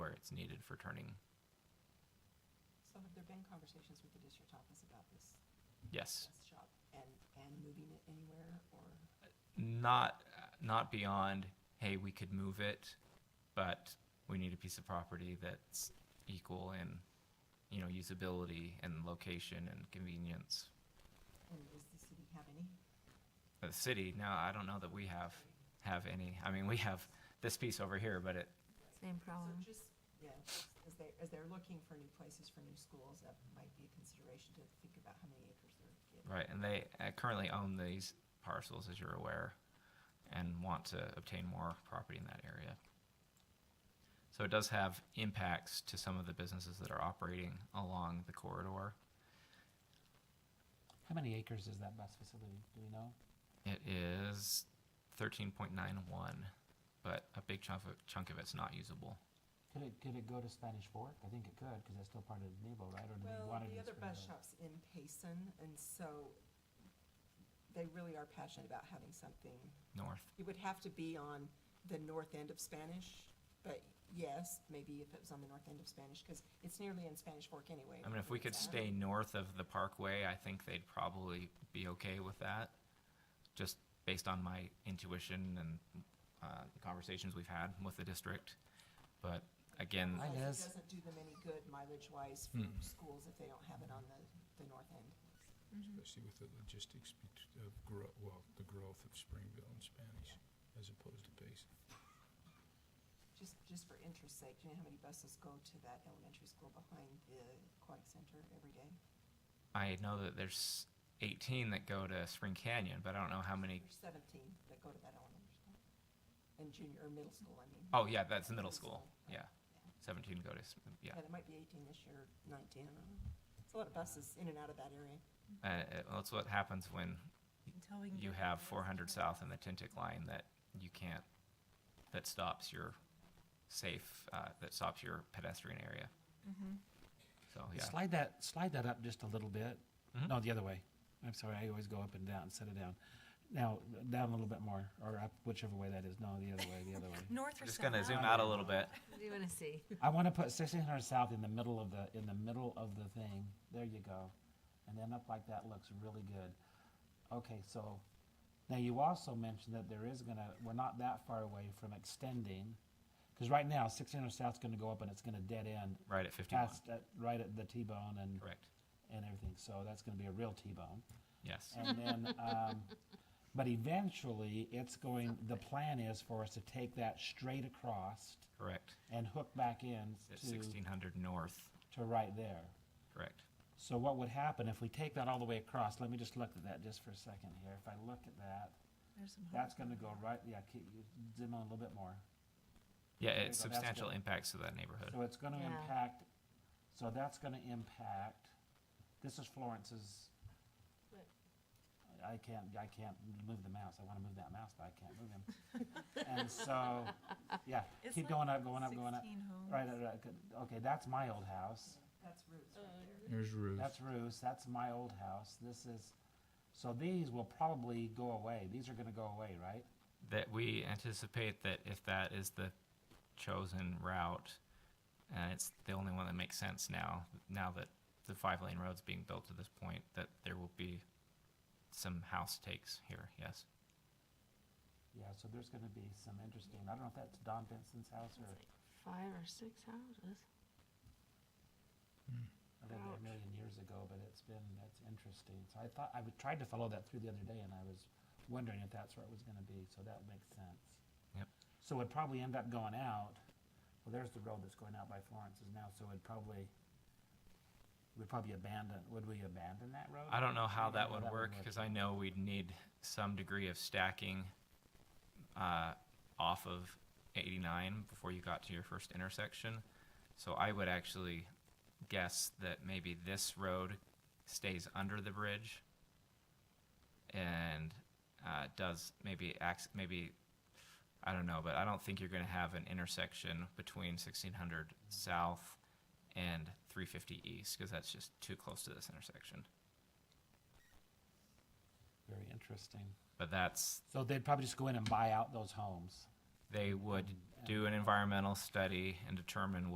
that's needed for turning. So have there been conversations with the district office about this? Yes. this Shop and, and moving it anywhere or? Not, not beyond, hey, we could move it, but we need a piece of property that's equal in, you know, usability and location and convenience. And does the city have any? The city, no, I don't know that we have, have any. I mean, we have this piece over here, but it, Same So problem. just, yeah, just as they, as they're looking for new places for new schools, that might be a consideration to think about how many acres they're getting. right, and they uh, currently own these parcels, as you're aware, and want to obtain more property in that area. So it does have impacts to some of the businesses that are operating along the corridor. How many acres is that bus facility? Do we know? It is thirteen point nine one, but a big chunk of chunk of it's not usable. Could it, could it go to Spanish Fork? I think it could, because that's still part of the Nebo, right? Or do we Well, want it the in other bus Spanish Fork? shop's in Payson and so they really are passionate about having something North, It would have to be on the north end of Spanish, but yes, maybe if it was on the north end of Spanish, because it's nearly in Spanish Fork anyway. I mean, if we could stay north of the Parkway, I think they'd probably be okay with that. Just based on my intuition and uh, the conversations we've had with the district, but again, I- Because Liz. It doesn't do them any good mileage-wise Hmm. for schools if they don't have it on the, the north end. mm-hmm. especially with the logistics bet- of grow, well, the growth of Springville and Spanish as opposed to Payson. Just, just for interest's sake, do you know how many buses go to that elementary school behind the aquatic center every day? I know that there's eighteen that go to Spring Canyon, but I don't know how many. There's seventeen that go to that elementary school. And junior, or middle school, I mean. Oh, yeah, that's the middle school, yeah. Seventeen go to, s- yeah. Yeah, there might be eighteen this year, nineteen, I don't know. It's a lot of buses in and out of that area. Uh, uh, that's what happens when Until we can you get have the- 400 south in the Tintic line that you can't, that stops your safe, uh, that stops your pedestrian area. mm-hmm. So, Oh, yeah. Slide that, slide that up just a little bit. Mhm. No, the other way. I'm sorry, I always go up and down, set it down. Now, down a little bit more, or up whichever way that is. No, the other way, the other way. North or We're just south? gonna zoom out a little bit. What do you want to see? I want to put sixteen hundred south in the middle of the, in the middle of the thing. There you go. And then up like that looks really good. Okay, so now you also mentioned that there is gonna, we're not that far away from extending. Because right now, sixteen hundred south's gonna go up and it's gonna dead end. Right at 51, Past, at- right at the T-bone and. correct, And everything. So that's gonna be a real T-bone. yes. And then, um, but eventually, it's going, the plan is for us to take that straight across Correct, and hook back in at to 1600 north, to right there. correct. So what would happen if we take that all the way across? Let me just look at that just for a second here. If I look at that, There's some that's gonna go right, yeah, keep, you zoom on a little bit more. Yeah, There you it's go, that's substantial good. impacts to that neighborhood. So it's gonna Yeah. impact, so that's gonna impact, this is Florence's. What? I can't, I can't move the mouse. I wanna move that mouse, but I can't move him. And so, yeah, It's keep like going up, going up, going up. 16 homes. Right, right, right, good. okay, that's my old house. That's roots right there. There's Ruth. That's Ruth's, that's my old house, this is, so these will probably go away, these are gonna go away, right? That we anticipate that if that is the chosen route, and it's the only one that makes sense now, now that the five lane road's being built to this point, that there will be some house takes here, yes. Yeah, so there's gonna be some interesting, I don't know if that's Don Benson's house or, Five or six houses. I lived there a million years ago, but it's been, that's interesting. So I thought, I would- tried to follow that through the other day and I was wondering if that's where it was gonna be, so that makes sense. Yep. So it'd probably end up going out, well, there's the road that's going out by Florence's now, so it'd probably, we'd probably abandon, would we abandon that road? I don't know how that Yeah, would work because I know we'd need some degree of stacking uh, off of 89 before you got to your first intersection. So I would actually guess that maybe this road stays under the bridge and uh, does maybe acts maybe I don't know, but I don't think you're going to have an intersection between 1600 South and 350 East because that's just too close to this intersection. Very interesting. But that's, So they'd probably just go in and buy out those homes. they would do an environmental study and determine